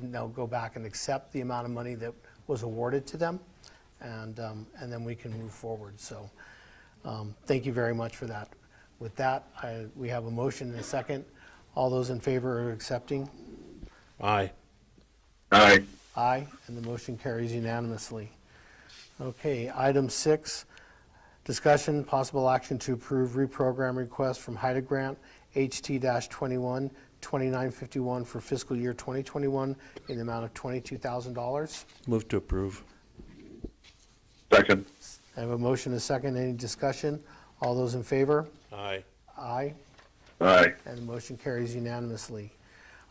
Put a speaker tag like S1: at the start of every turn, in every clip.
S1: now go back and accept the amount of money that was awarded to them, and, um, and then we can move forward. So um, thank you very much for that. With that, I- we have a motion and a second. All those in favor of accepting?
S2: Aye.
S3: Aye.
S1: Aye, and the motion carries unanimously. Okay, item six, discussion, possible action to approve reprogram request from HIDA Grant, HT-21, 2951 for fiscal year 2021 in the amount of $22,000.
S2: Move to approve.
S3: Second.
S1: I have a motion, and a second, any discussion? All those in favor?
S2: Aye.
S1: Aye.
S3: Aye.
S1: And the motion carries unanimously.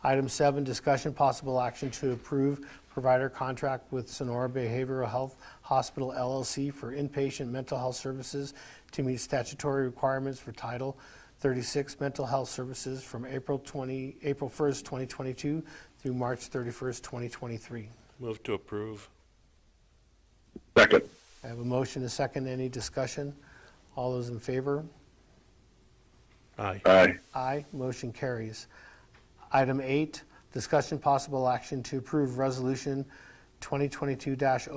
S1: Item seven, discussion, possible action to approve provider contract with Sonora Behavioral Health Hospital LLC for inpatient mental health services to meet statutory requirements for Title 36 Mental Health Services from April 20, April 1st, 2022 through March 31st, 2023.
S2: Move to approve.
S3: Second.
S1: I have a motion, a second, any discussion? All those in favor?
S2: Aye.
S3: Aye.
S1: Aye, motion carries. Item eight, discussion possible action to approve Resolution 2022-05,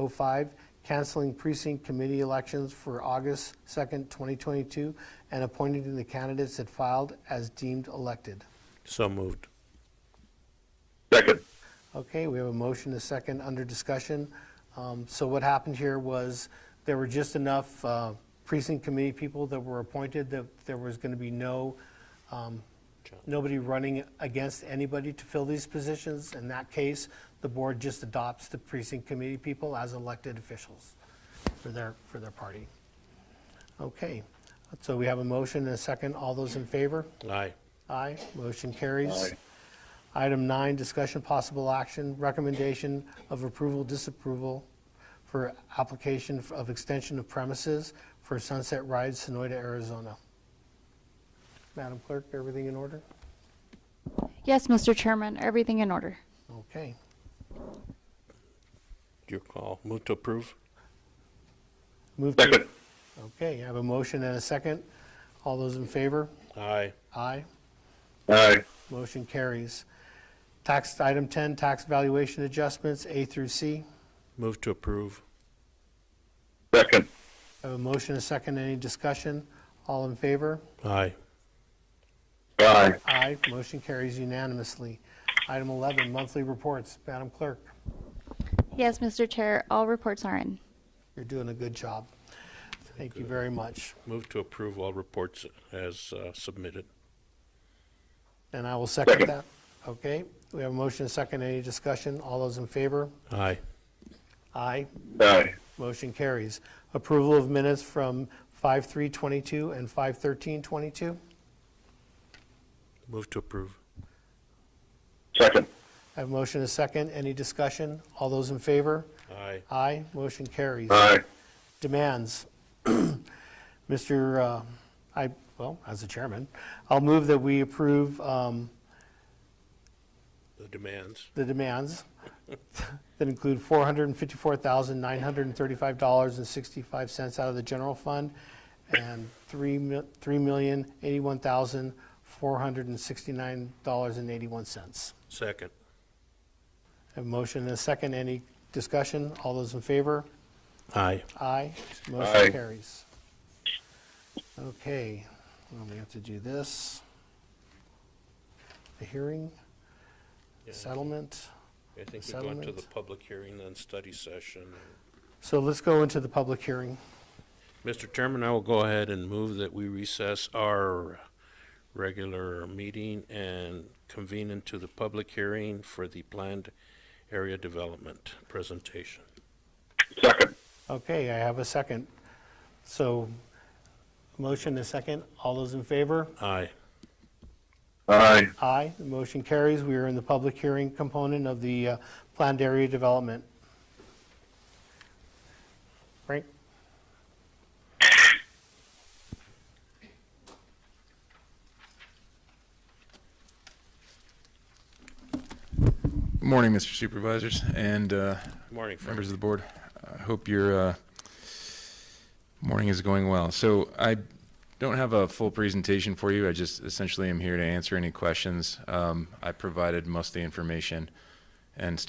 S1: canceling precinct committee elections for August 2nd, 2022, and appointing the candidates that filed as deemed elected.
S2: So moved.
S3: Second.
S1: Okay, we have a motion, a second, under discussion. Um, So what happened here was, there were just enough uh, precinct committee people that were appointed that there was going to be no, um, nobody running against anybody to fill these positions. In that case, the board just adopts the precinct committee people as elected officials for their, for their party. Okay, so we have a motion and a second. All those in favor?
S2: Aye.
S1: Aye, motion carries.
S3: Aye.
S1: Item nine, discussion possible action, recommendation of approval, disapproval for application of extension of premises for Sunset Ride, Sonoyta, Arizona. Madam Clerk, everything in order?
S4: Yes, Mr. Chairman, everything in order.
S1: Okay,
S2: Your call. Move to approve.
S1: move to,
S3: Second.
S1: okay, I have a motion and a second. All those in favor?
S2: Aye.
S1: Aye.
S3: Aye.
S1: Motion carries. Tax, item 10, tax valuation adjustments, A through C.
S2: Move to approve.
S3: Second.
S1: I have a motion, a second, any discussion? All in favor?
S2: Aye.
S3: Aye.
S1: Aye, motion carries unanimously. Item 11, monthly reports. Madam Clerk,
S4: Yes, Mr. Chair, all reports are in.
S1: you're doing a good job. Thank you very much.
S2: Move to approve all reports as uh, submitted.
S1: And I will second
S3: Second.
S1: that. Okay, we have a motion, a second, any discussion? All those in favor?
S2: Aye.
S1: Aye,
S3: Aye.
S1: motion carries. Approval of minutes from 5/3/22 and 5/13/22.
S2: Move to approve.
S3: Second.
S1: I have a motion, a second, any discussion? All those in favor?
S2: Aye.
S1: Aye, motion carries.
S3: Aye.
S1: demands. Mr., uh, I, well, as the chairman, I'll move that we approve um,
S2: The demands.
S1: the demands that include $454,935.65 out of the general fund and three mi- $3,081,469.81.
S2: Second.
S1: Have a motion and a second. Any discussion? All those in favor?
S2: Aye.
S1: Aye.
S3: Aye.
S1: Motion carries. Okay, well, we have to do this. The hearing, settlement.
S2: I think we go into the
S1: Settlement.
S2: public hearing, then study session.
S1: So let's go into the public hearing.
S2: Mr. Chairman, I will go ahead and move that we recess our regular meeting and convene into the public hearing for the planned area development presentation.
S3: Second.
S1: Okay, I have a second. So, motion is second. All those in favor?
S2: Aye.
S3: Aye.
S1: Aye, the motion carries. We are in the public hearing component of the uh, planned area development. Frank?
S5: Good morning, Mr. Supervisors and uh,
S2: Morning, Frank.
S5: members of the board. I hope your uh, morning is going well. So I don't have a full presentation for you. I just essentially am here to answer any questions. Um, I provided most of the information and